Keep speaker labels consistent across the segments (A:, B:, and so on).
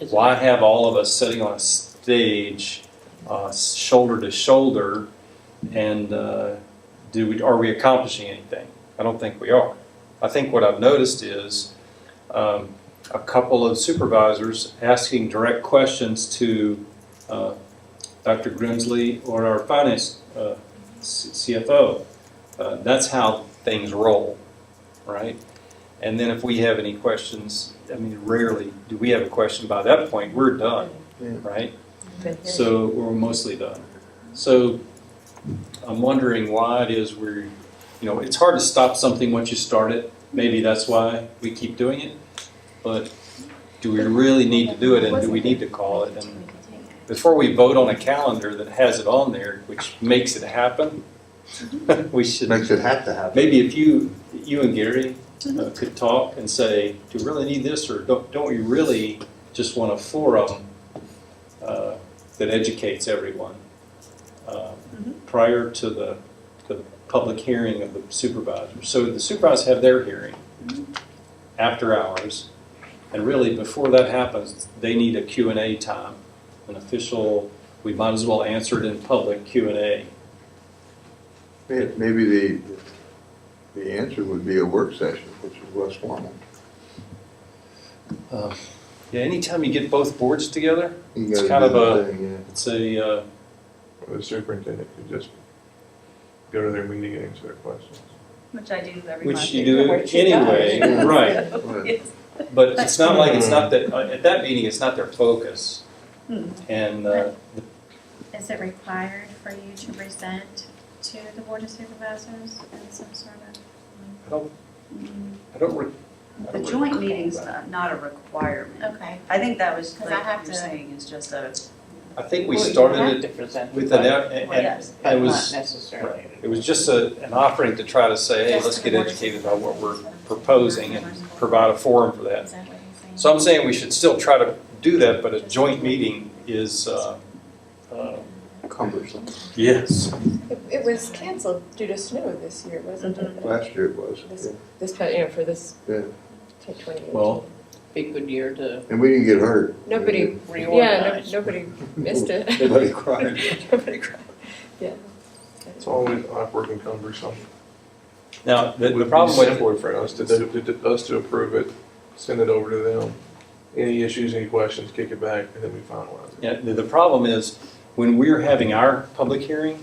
A: Is it-
B: why have all of us sitting on a stage, uh, shoulder to shoulder, and uh, do we, are we accomplishing anything? I don't think we are. I think what I've noticed is um, a couple of supervisors asking direct questions to uh, Dr. Grimsley or our finance uh, C- CFO. Uh, that's how things roll, right? And then if we have any questions, I mean, rarely do we have a question. By that point, we're done,
C: Yeah.
B: right?
A: But there's-
B: So we're mostly done. So I'm wondering why it is we're, you know, it's hard to stop something once you start it. Maybe that's why we keep doing it. But do we really need to do it and do we need to call it? And before we vote on a calendar that has it on there, which makes it happen, we should.
C: Makes it have to happen.
B: Maybe if you, you and Gary uh, could talk and say, do we really need this, or don't, don't we really just want a forum uh, that educates everyone uh, prior to the, the public hearing of the supervisor? So the supervisors have their hearing after hours, and really, before that happens, they need a Q and A time, an official, we might as well answer it in public Q and A.
C: May- Maybe the, the answer would be a work session, which is less formal.
B: Yeah, anytime you get both boards together,
C: You
B: It's
C: gotta
B: kind
C: do
B: of
C: the
B: a-
C: thing, yeah.
B: it's a, uh,
D: The superintendent could just go to their meeting and answer their questions.
E: Which I do every month.
B: Which you do
A: Which you
B: anyway,
C: does.
B: right,
E: Yes.
B: but it's not like, it's
D: Hmm.
B: not that, uh, at that meeting, it's not their focus.
E: Hmm.
B: And, uh,
F: Is it required for you to present to the Board of Supervisors in some sort of?
B: I don't, I don't. re- I
E: The
B: don't
E: joint
B: recall
E: meeting's
B: that.
E: not not a requirement.
F: Okay.
E: I think that was,
F: 'Cause I
E: like
F: have
E: you're
F: to-
E: saying, is just a,
B: I think we
A: Well, you have
B: started
A: to present
B: it with
A: the
B: an,
A: budget,
B: eff- and,
E: Well,
B: and
E: yes,
A: but
B: it
A: not
B: was,
A: necessarily.
B: it was just a, an offering to try to say, hey,
F: Just
B: let's
F: to the
B: get
F: Board of
B: educated about what we're
F: Supervisors.
B: proposing and provide a forum for that.
F: Is that what he's saying?
B: So I'm saying we should still try to do that, but a joint meeting is, uh, uh,
C: Cumbersome.
B: yes,
G: It, it was canceled due to snow this year, wasn't it?
B: Mm-hmm.
C: Last year it was.
G: This,
C: yeah.
G: this, pa- you know, for this
C: Yeah.
G: twenty years.
B: well,
A: Be good year to
C: And we didn't get hurt.
G: Nobody, yeah,
A: reorganize.
G: no, nobody missed it.
C: Nobody cried.
G: Nobody cried. Yeah.
D: It's always awkward and cumbersome.
B: now, the,
D: It
B: the
D: would
B: problem
D: be
B: with,
D: simpler for us to, to, to- us to approve it, send it over to them. Any issues, any questions, kick it back, and then we finalize it.
B: Yeah, the, the problem is, when we're having our public hearing,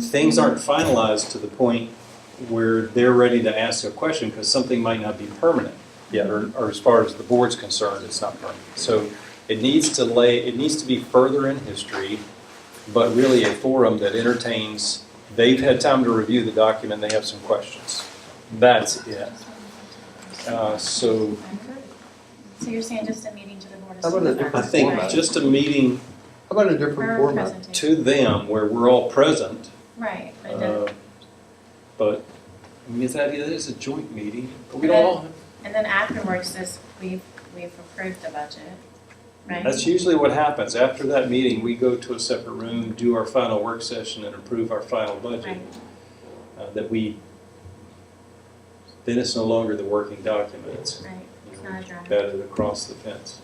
B: things aren't finalized to the point where they're ready to ask a question, because something might not be permanent. yet, Or, or as far as the board's concerned, it's not permanent. So it needs to lay, it needs to be further in history, but really a forum that entertains, they've had time to review the document, they have some questions. That's it. Uh, so
F: So you're saying just a meeting to the Board of
C: How about a
F: Supervisors?
C: different
B: I think
C: Format.
B: just a meeting
C: How about a
F: For
C: different
F: a
C: format?
F: presentation.
B: to them where we're all present,
F: Right, but it does-
B: Uh, But, I mean, it's idea, it's a joint meeting, but we don't all,
F: and then afterwards, this, we've, we've approved the budget, right?
B: that's usually what happens. After that meeting, we go to a separate room, do our final work session and approve our final budget.
F: Right.
B: uh, That we, then it's no longer the working document, it's
F: Right, it's not a draft.
B: batted across the fence.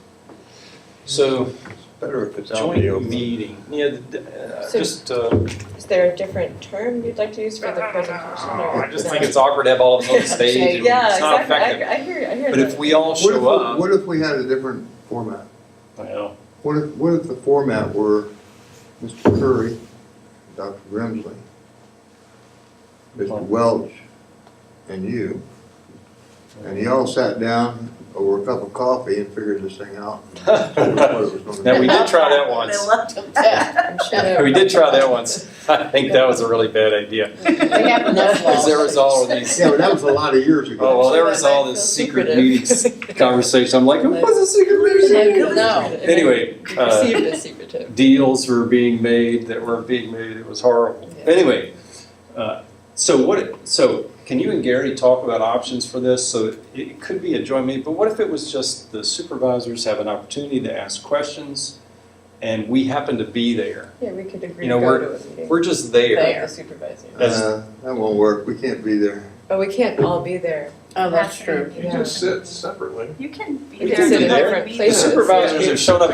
B: So,
C: Better if it's out in the
B: joint
C: open.
B: meeting, yeah, th- uh,
G: So-
B: just, uh,
G: Is there a different term you'd like to use for the presentation or?
B: I just think it's awkward to have all of them on the stage and
G: Yeah,
B: it's not
G: exactly,
B: effective.
G: I, I hear, you, I hear.
B: But if
G: that.
B: we all
C: What if,
B: show up,
C: what if we had a different format?
B: well,
C: What if, what if the format were Mr. Curry, Dr. Grimsley, Mr. Welch, and you? And you all sat down over a cup of coffee and figured this thing out.
B: now we
C: Now
B: did try that once.
E: I love to-
G: Yeah, I'm sure they-
B: We did try that once. I think that was a really bad idea.
A: We have enough
B: Because there was all of these,
C: Yeah, but that was a lot of years
B: oh, well,
C: ago.
B: there was all this secret meetings conversation. I'm like, what is a secret meeting?
G: No.
B: Anyway,
G: It
B: uh,
G: Perceived as secretive.
B: deals were being made that were being made. It was horrible.
G: Yeah.
B: Anyway, uh, so what, so can you and Gary talk about options for this? So it- it could be a joint meeting, but what if it was just the supervisors have an opportunity to ask questions and we happen to be there?
G: Yeah, we could agree
B: You know,
G: to
B: we're-
G: go to a meeting.
B: We're just there.
G: Like the supervisor.
B: That's-
C: Uh, That won't work, we can't be there.
G: But we can't all be there.
A: Oh, that's true.
D: You just sit separately.
E: You can be
G: We
E: there.
G: can sit
E: and
G: in
E: not
G: different
E: be
B: The
G: places.
E: there.
B: supervisors have shown up